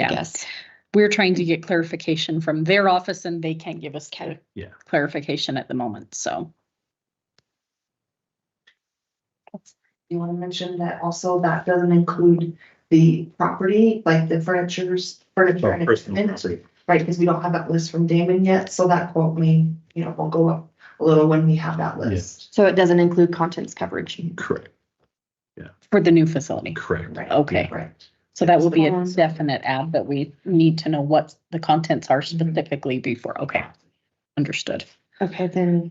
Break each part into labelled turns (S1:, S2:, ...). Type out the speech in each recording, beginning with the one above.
S1: Yeah.
S2: guess. We're trying to get clarification from their office and they can't give us clar-
S3: Yeah.
S2: clarification at the moment, so.
S4: You wanna mention that also that doesn't include the property, like the furnitures, furniture
S3: Oh,
S4: and
S3: personal
S4: equipment,
S3: property.
S4: right, cause we don't have that list from Damon yet, so that quote may, you know, will go up a little when we have that list.
S1: So it doesn't include contents coverage.
S3: Correct,
S2: For the new facility.
S3: correct.
S4: Right,
S2: Okay,
S4: right.
S2: so that will be a
S1: Um,
S2: definite add, but we need to know what the contents are specifically before, okay. Understood.
S1: Okay, then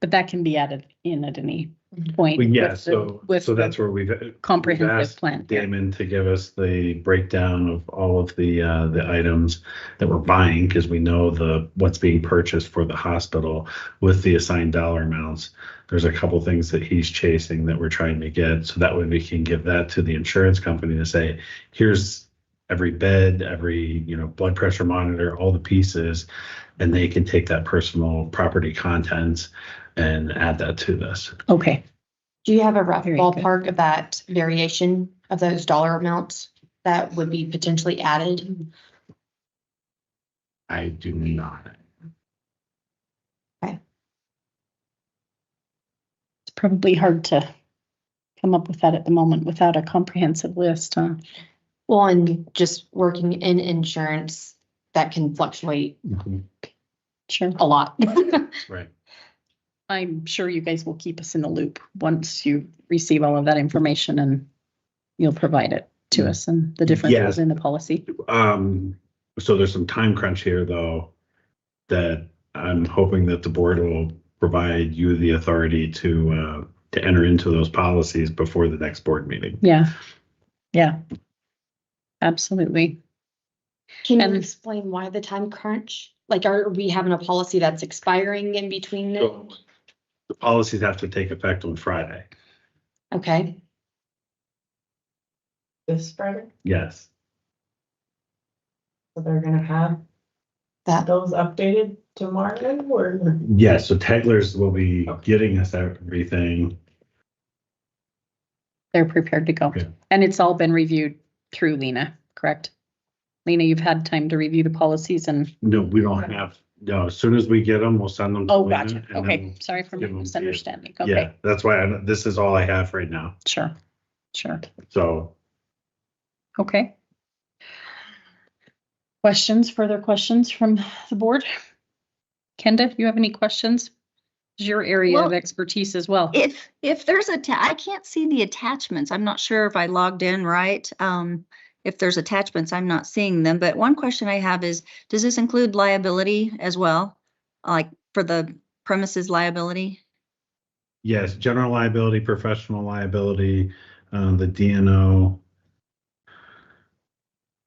S2: But that can be added in at any
S4: Mhm.
S2: point.
S3: Well, Yeah,
S2: with the-
S3: so,
S2: with
S3: so
S2: the
S3: that's where we've. we've
S2: Comprehensive
S3: asked
S2: plan.
S3: Damon to give us the breakdown of all of the, uh, the items that we're buying, because we know the, what's being purchased for the hospital with the assigned dollar amounts. There's a couple things that he's chasing that we're trying to get, so that way we can give that to the insurance company to say, here's every bed, every, you know, blood pressure monitor, all the pieces, and they can take that personal property contents and add that to this.
S2: Okay,
S1: do you have a rough
S2: Very good.
S1: ballpark of that variation of those dollar amounts that would be potentially added?
S3: I do not.
S2: it's probably hard to come up with that at the moment without a comprehensive list, huh?
S1: Well, and just working in insurance, that can fluctuate
S2: Sure.
S1: a lot.
S3: Mm-hmm. Right.
S2: I'm sure you guys will keep us in the loop once you receive all of that information and you'll provide it to us and the differences
S3: Yes.
S2: in the policy.
S3: Um, so there's some time crunch here though, that I'm hoping that the board will provide you the authority to, uh, to enter into those policies before the next board meeting.
S2: Yeah, yeah. Absolutely.
S1: Can
S2: And-
S1: you explain why the time crunch? Like, are we having a policy that's expiring in between? it?
S3: So The policies have to take effect on Friday.
S1: Okay,
S4: This Friday,
S3: Yes.
S4: so they're gonna have
S1: that,
S4: those updated tomorrow or?
S3: Yes. So Tegler's will be
S4: Okay.
S3: getting us everything.
S2: They're prepared to go.
S3: Yeah.
S2: And it's all been reviewed through Lena, correct? Lena, you've had time to review the policies and,
S3: No, we don't have, no, as soon as we get them, we'll send them. to
S2: oh,
S3: Lena,
S2: gotcha.
S3: Mm-hmm. and
S2: Okay,
S3: then-
S2: sorry for my
S3: give 'em to you.
S2: misunderstanding.
S3: Yeah,
S2: Okay,
S3: that's why, I- this is all I have right now.
S2: sure, sure.
S3: So
S2: Okay. Questions, further questions from the board? Kenda, you have any questions? It's your area of
S5: Well-
S2: expertise as well.
S5: If, if there's a, ta- I can't see the attachments. I'm not sure if I logged in right. Um, if there's attachments, I'm not seeing them. But one question I have is, does this include liability as well? Like for the premises liability?
S3: Yes, general liability, professional liability, uh, the DNO,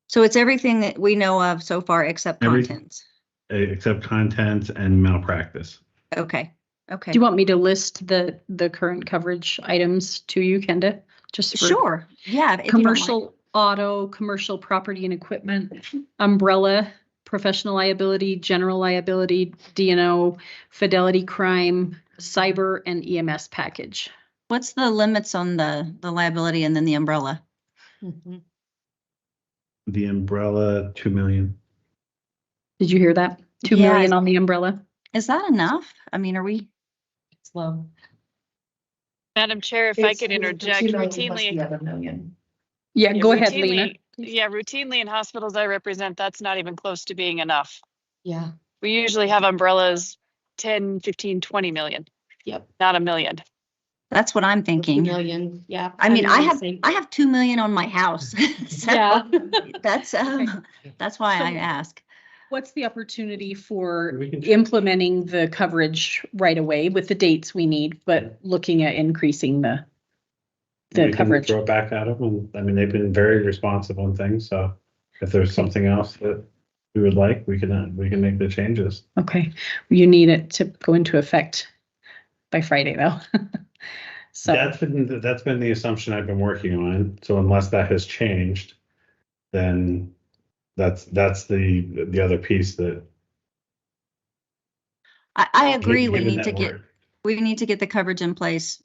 S5: So it's everything that we know of so far except
S3: Every-
S5: contents.
S3: eh, except content and malpractice.
S5: Okay, okay.
S2: Do you want me to list the, the current coverage items to you, Kenda? Just for
S5: Sure, yeah. if you don't mind.
S2: commercial auto, commercial property and equipment, umbrella, professional liability, general liability, DNO, fidelity crime, cyber and EMS package.
S5: What's the limits on the, the liability and then the umbrella?
S3: The umbrella, two million.
S2: Did you hear that? Two
S5: Yeah,
S2: million on the umbrella?
S5: Is that enough? I mean, are we?
S1: it's low.
S6: Madam Chair, if I could interject
S4: The
S6: routinely.
S4: other million.
S2: Yeah,
S6: yeah,
S2: Uh, go ahead,
S6: routinely-
S2: Lena.
S6: Yeah, routinely in hospitals I represent, that's not even close to being enough.
S1: Yeah,
S6: We usually have umbrellas 10, 15, 20 million.
S1: Yep.
S6: Not a million.
S5: That's what I'm
S1: a few
S5: thinking.
S1: million, yeah.
S5: I mean, I have,
S1: same-
S5: I have two million on my house. so
S1: Yeah.
S5: That's, um, that's why I
S2: So-
S5: ask.
S2: What's the opportunity for
S3: We can check.
S2: implementing the coverage right away with the dates we need, but looking at increasing the, the
S3: We can
S2: coverage?
S3: Throw it back at them. And I mean, they've been very responsive on things. So if there's something else that we would like, we can, uh, we can make the changes.
S2: Okay, you need it to go into effect by Friday though. So,
S3: That's been, that's been the assumption I've been working on. So unless that has changed, then that's, that's the, the other piece that.
S5: I, I agree, we
S3: given
S5: need
S3: that
S5: to get,
S3: we're-
S5: we need to get the coverage in place.